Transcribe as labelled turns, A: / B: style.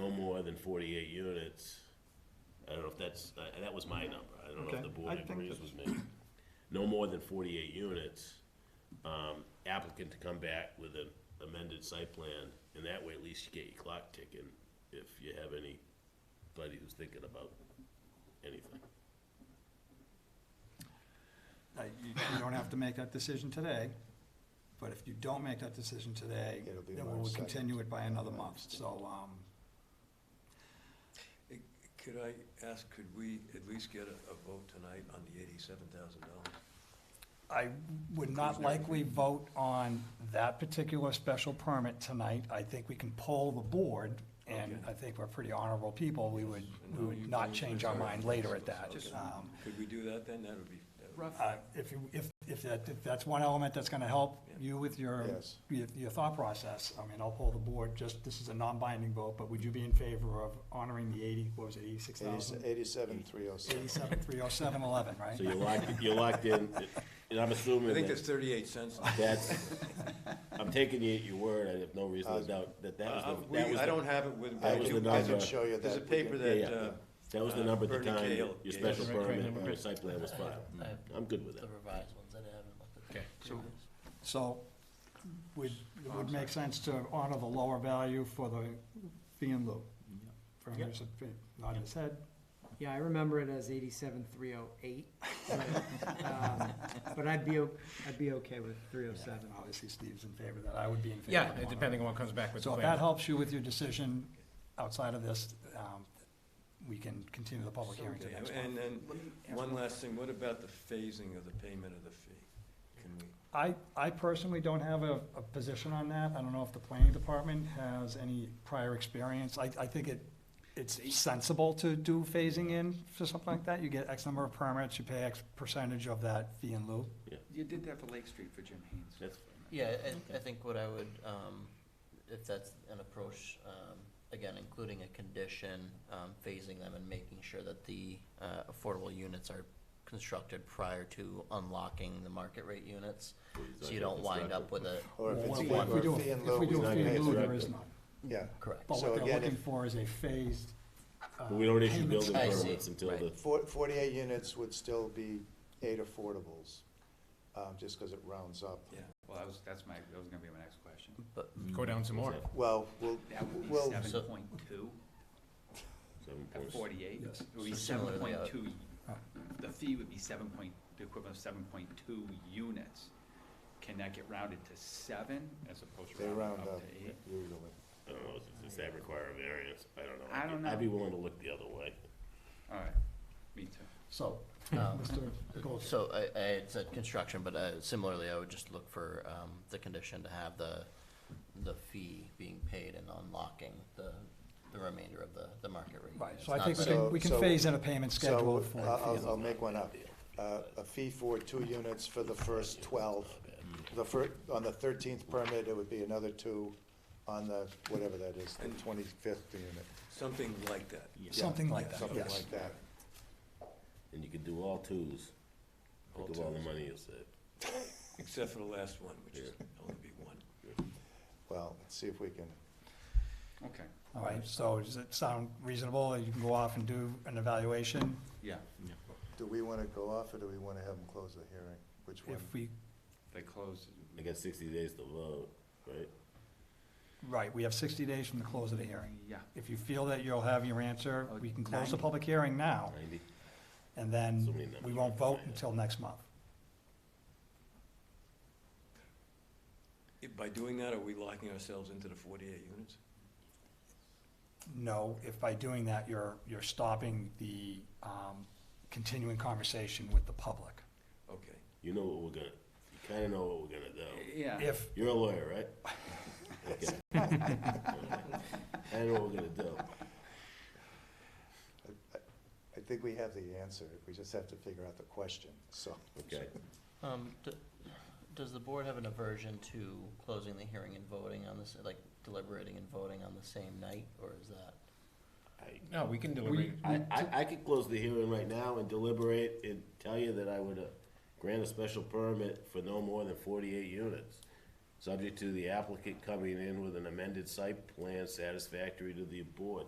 A: more than forty-eight units, I don't know if that's, I- that was my number, I don't know if
B: Okay,
A: the
B: I
A: board
B: think
A: agrees
B: that's-
A: with me. No more than forty-eight units, um, applicant to come back with an amended site plan, and that way at least you get your clock ticking, if you have anybody who's thinking about anything.
B: Uh, You you don't have to make that decision today, but if you don't make that decision today,
C: It'll be
B: then we
C: March
B: will
C: second.
B: continue it by another month, so, um,
D: Could I ask, could we at least get a, a vote tonight on the eighty-seven thousand dollars?
B: I would not likely vote on that particular special permit tonight. I think we can poll the board, and
D: Okay.
B: I think we're pretty honorable people. We would,
D: I
B: we
D: know
B: would
D: you-
B: not
D: you-
B: change our
D: sorry.
B: mind later at that.
D: Okay.
B: Um,
D: Could we do that then? That would be, that would-
B: uh, If, you- if, if that, if that's one element that's gonna help
D: Yeah.
B: you with your,
C: Yes.
B: your, your thought process, I mean, I'll poll the board, just, this is a non-binding vote, but would you be in favor of honoring the eighty, what was it, eighty-six thousand?
C: Eighty-seven, three oh six.
B: Eighty-seven, three oh seven, eleven, right?
A: So you're locked, you're locked in, and I'm
D: I
A: assuming
D: think that's
A: that
D: thirty-eight cents.
A: that's, I'm taking you at your word, I have no reason to doubt that that was
D: Uh,
A: the,
D: we-
A: that was
D: I don't
A: the,
D: have it with me.
B: oh
A: that was the
C: I
A: number.
C: can show you that.
D: There's a paper
A: yeah,
D: that,
A: yeah.
D: uh,
A: that was the
D: uh,
A: number at the
D: Bernie
A: time,
D: Cahill
A: your
D: gave
A: special
D: us.
A: permit, your site plan was filed.
E: I have
A: I'm good with
E: Uh, the
A: that.
E: revised ones, I haven't looked at. the
F: Okay.
E: previous.
B: So, would, it would make sense to honor the lower value for the fee in lieu. From his, not his head,
G: Yeah, I remember it as eighty-seven, three oh eight. um, But I'd be, o- I'd be okay with three oh seven.
B: and obviously Steve's in favor of that, I would be in favor
F: Yeah,
B: of honoring.
F: depending on what comes back with the
B: So if that
F: plan.
B: helps you with your decision outside of this, um, we can continue the public hearing to the next
D: And
B: month.
D: then, one last thing, what about the phasing of the payment of the fee? Can we?
B: I, I personally don't have a, a position on that. I don't know if the planning department has any prior experience. I, I think it, it's sensible to do phasing in for something like that. You get X number of permits, you pay X percentage of that fee in lieu.
F: You did that for Lake Street for Jim Haynes.
A: That's
E: Yeah, I, I think what I would, um, if that's an approach, um, again, including a condition, um, phasing them and making sure that the, uh, affordable units are constructed prior to unlocking the market rate units, so you don't wind up with a,
C: Or if it's
B: Well,
C: fee
B: if we do
C: or
B: a-
C: fee in lieu.
B: If we do a
A: not
B: fee
A: gonna
B: in lieu, there
A: interrupt
B: is
A: it.
B: none.
C: Yeah,
E: correct.
B: But
C: So
B: what they're
C: again,
B: looking
C: if-
B: for is a phased. uh,
A: But we don't issue
B: payment
A: building
E: I see,
A: permits until the,
E: right.
C: Four- forty-eight units would still be eight affordables, um, just because it rounds up.
D: Yeah.
H: Well, that was, that's my, that was gonna be my next question.
E: but,
F: Go down some more.
C: Well, we'll,
H: That would be
C: Well-
H: seven
E: So-
H: point two
A: seven
H: at
A: points.
H: forty-eight?
B: Yes.
H: It would be
E: So
H: seven
E: similarly,
H: point
E: uh,
H: two, the fee would be seven point, the equivalent of seven point two units. Can that get rounded to seven as opposed
C: they
H: to
C: round
H: rounding
C: up
H: up to eight?
C: usually.
A: I don't know, does- does that require a variance? I don't know.
H: I don't
A: I'd be
H: know.
A: willing to look the other way.
H: All right, me too.
B: So,
E: um,
B: Mr. Gold,
E: So I, I had said construction, but uh, similarly, I would just look for um, the condition to have the, the fee being paid and unlocking the, the remainder of the, the market rate.
B: right,
E: It's
B: so I
E: not
B: think we
E: that-
B: can, we can
C: So-
B: phase in a payment schedule
C: So
B: for.
C: uh, um,
B: the
C: I'll,
B: fee in
C: I'll-
B: lieu.
C: I'll make one up. Uh, a fee for two units for the first twelve. The fir, on the thirteenth permit, it would be another two on the, whatever that is, the twenty-fifth unit.
D: Something like that.
B: Something like that,
C: Something
B: yes.
C: like that.
A: And you can do all twos,
D: All
A: think of all the
D: twos.
A: money you save.
D: Except for the last one, which is only be one.
C: Well, let's see if we can,
H: Okay,
B: All right, so does it sound reasonable? You can go off and do an evaluation
H: yeah,
C: do we wanna go off or do we wanna have them close the hearing? Which one?
B: if we,
H: they closed.
A: They got sixty days to vote, right?
B: right, we have sixty days from the close of the hearing.
H: Yeah,
B: If you feel that you'll have your answer, we can close the
H: Ninety.
B: public hearing
E: Oh.
B: now,
A: Ninety?
B: and
A: So
B: then
A: many numbers.
B: we won't vote until next month.
D: If- By doing that, are we locking ourselves into the forty-eight units?
B: No, if by doing that, you're, you're stopping the, um, continuing conversation with the public.
D: Okay.
A: You know what we're gonna, you kinda know what we're gonna do.
H: yeah.
B: If,
A: You're a lawyer, right? Okay. I know what we're gonna do.
C: I think we have the answer, we just have to figure out the question, so.
A: Okay.
E: Um, d- Does the board have an aversion to closing the hearing and voting on this, like deliberating and voting on the same night, or is that?
A: I,
F: No, we can deliberate.
A: I, I, I could close the hearing right now and deliberate and tell you that I would uh, grant a special permit for no more than forty-eight units, subject to the applicant coming in with an amended site plan satisfactory to the board.